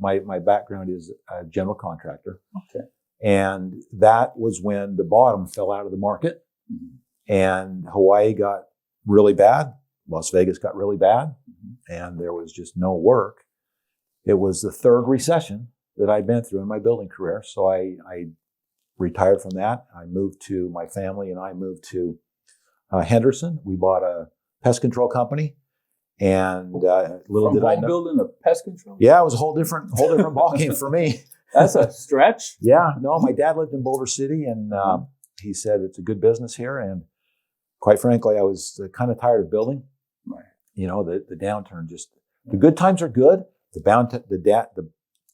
my, my background is a general contractor. Okay. And that was when the bottom fell out of the market and Hawaii got really bad. Las Vegas got really bad and there was just no work. It was the third recession that I'd been through in my building career. So I, I retired from that. I moved to my family and I moved to uh, Henderson. We bought a pest control company and uh, little From did I home know. building to pest control. Yeah, it was a whole different whole different ballgame for me. That's a stretch. Yeah, no, my dad lived in Boulder City, and um, he said it's a good business here. And quite frankly, I was uh, kind of tired of building. Right. You know, the the downturn just the good times are good. The bound the da- the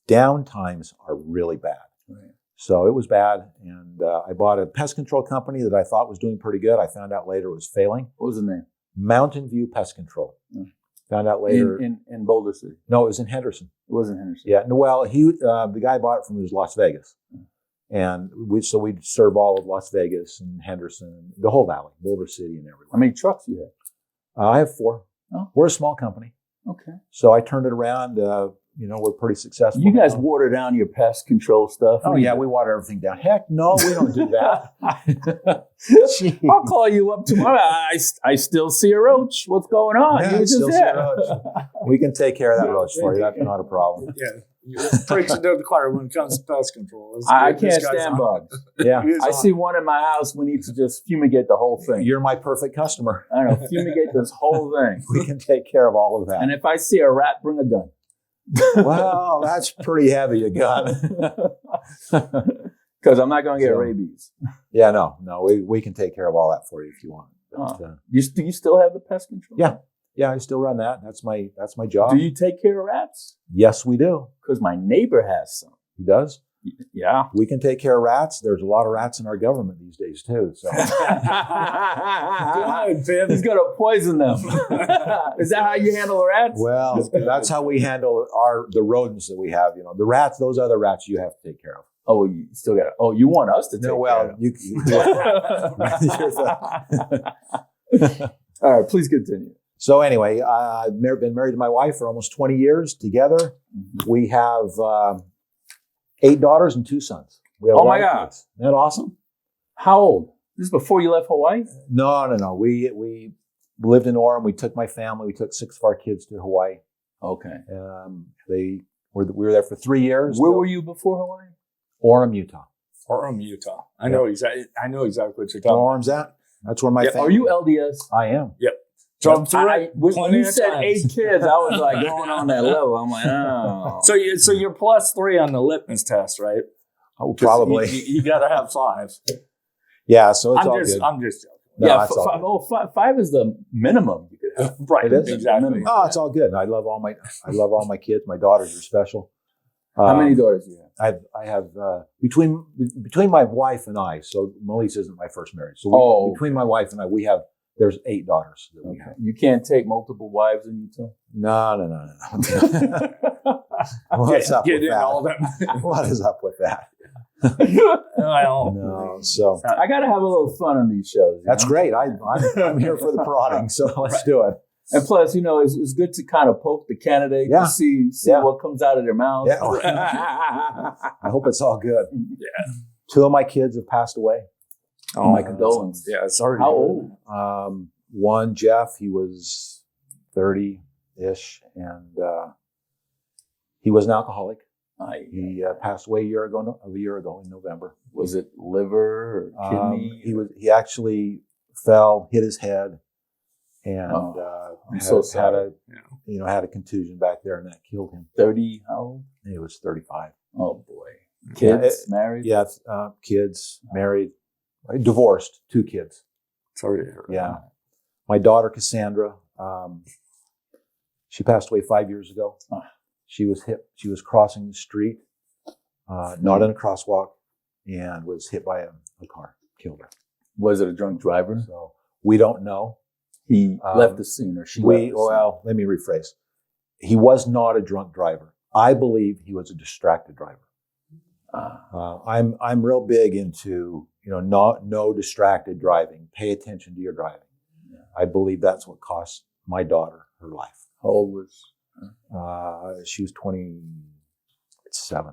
down times are really bad. Right. So it was bad, and uh, I bought a pest control company that I thought was doing pretty good. I found out later it was failing. What was the name? Mountain View Pest Control. Hmm. Found out later. In, in in Boulder City. no, it was in Henderson. It wasn't Henderson. Yeah. no, Well, he uh, the guy bought it from his Las Vegas, and we so we'd serve all of Las Vegas and Henderson, the whole valley, Boulder City, and everywhere. How many trucks you had? Uh, I have four. Oh. We're a small company, Okay. so I turned it around. Uh, you know, we're pretty successful. You guys now. water down your pest control stuff. Oh yeah, we water everything down. Heck, no, we don't do that. Gee. I'll call you up tomorrow. I, I still see a roach. What's going on? Yeah, You I just still see there. a roach. we can take care of that Yeah, roach for you. That's not a problem. Yeah, preaching to the choir when it comes to pest control. It's- I, I this can't guy's stand on- bugs. Yeah, he is I on. see one in my house. We need to just fumigate the whole thing. you're my perfect customer. I don't know, fumigate this whole thing. We can take care of all of that. And if I see a rat, bring a gun. wow, that's pretty heavy. A gun. Because I'm not going to get So- rabies. Yeah, no, no, we, we can take care of all that for you if you want. But, uh, You, st- you still have the pest control? Yeah. yeah, I still run that. That's my that's my job. Do you take care of rats? yes, we do. Because my neighbor has some. He does. Yeah. We can take care of rats. There's a lot of rats in our government these days too. So Good, Viv. He's going to poison them. Is that how you handle rats? well, that's how we handle our the rodents that we have. You know, the rats. Those other rats you have to take care of. oh, you still got to. Oh, you want us to take No, care well, of you. them. All right, please continue. so anyway, I- I've mar- been married to my wife for almost 20 years. Together, Mm-hmm. we have um eight daughters and two sons. We have Oh a lot my of God. kids. Isn't that awesome? How old? This is before you left Hawaii? No, no, no. We we lived in Orem. We took my family. We took six of our kids to Hawaii. Okay. Um, they were we were there for three years. Where were you before Hawaii? Orem, Utah. Orem, Utah. I Yeah. know exactly. I know exactly what you're Where talking. Orem's at? That's where my Yeah, family. Are you LDS? I am. about. Jump through I- it. I- when plenty you of said times. eight kids, I was like going on that level. I'm like, oh. So you so you're plus three on the litmus test, right? Oh, 'Cause probably. you, you, you got to have five. yeah. So it's I'm all just good. I'm just joking. No, yeah, it's f- all five, oh, five, five is the minimum you could have. Right, It is. exactly. No, it's all good. I love all my I love all my kids. My daughters are special. How Um, many daughters do you have? I've, I have uh, between between my wife and I. So Melissa isn't my first marriage. So we, Oh. between my wife and I, we have there's eight daughters that we have. You can't take multiple wives in Utah. No, no, no, no. no. What's Get, up get with in that? all them. what is up with that? well, No, so I got to have a little fun on these shows. you that's know? great. I, I'm, I'm here for the prodding, so let's do it. And plus, you know, it's, it's good to kind of poke the candidate Yeah. to see see Yeah. what comes out of their mouth. Yeah. I hope it's all good. Two of my kids have passed away. Oh, my condolences. Yeah, sorry. to How hear old? Um, one, Jeff, he was 30 ish, and uh, he was an alcoholic. I, He uh, passed away a year ago, no, a year ago in November. was it liver or kidney? Um, he was he actually fell, hit his head, and Oh, uh, I'm had, so had sorry. a you know had a contusion back there, and that killed him. 30, how old? He was 35. Oh, boy. Yeah, Kids, married? Yeah, it's, uh, kids, married, uh, divorced, two kids. Sorry to hear that. Yeah, my daughter Cassandra, um, she passed away five years ago. Ah. She was hit. She was crossing the street, uh, not in a crosswalk, and was hit by a, a car, killed her. Was it a drunk driver? So we don't know. He Um, left the scene or she left We the scene. well, let me rephrase. He was not a drunk driver. I believe he was a distracted driver. Ah, Uh, I'm I'm real big into you know not no distracted driving. Pay attention to your driving. Yeah. I believe that's what cost my daughter her life. how old was Uh, she was 20, It's seven.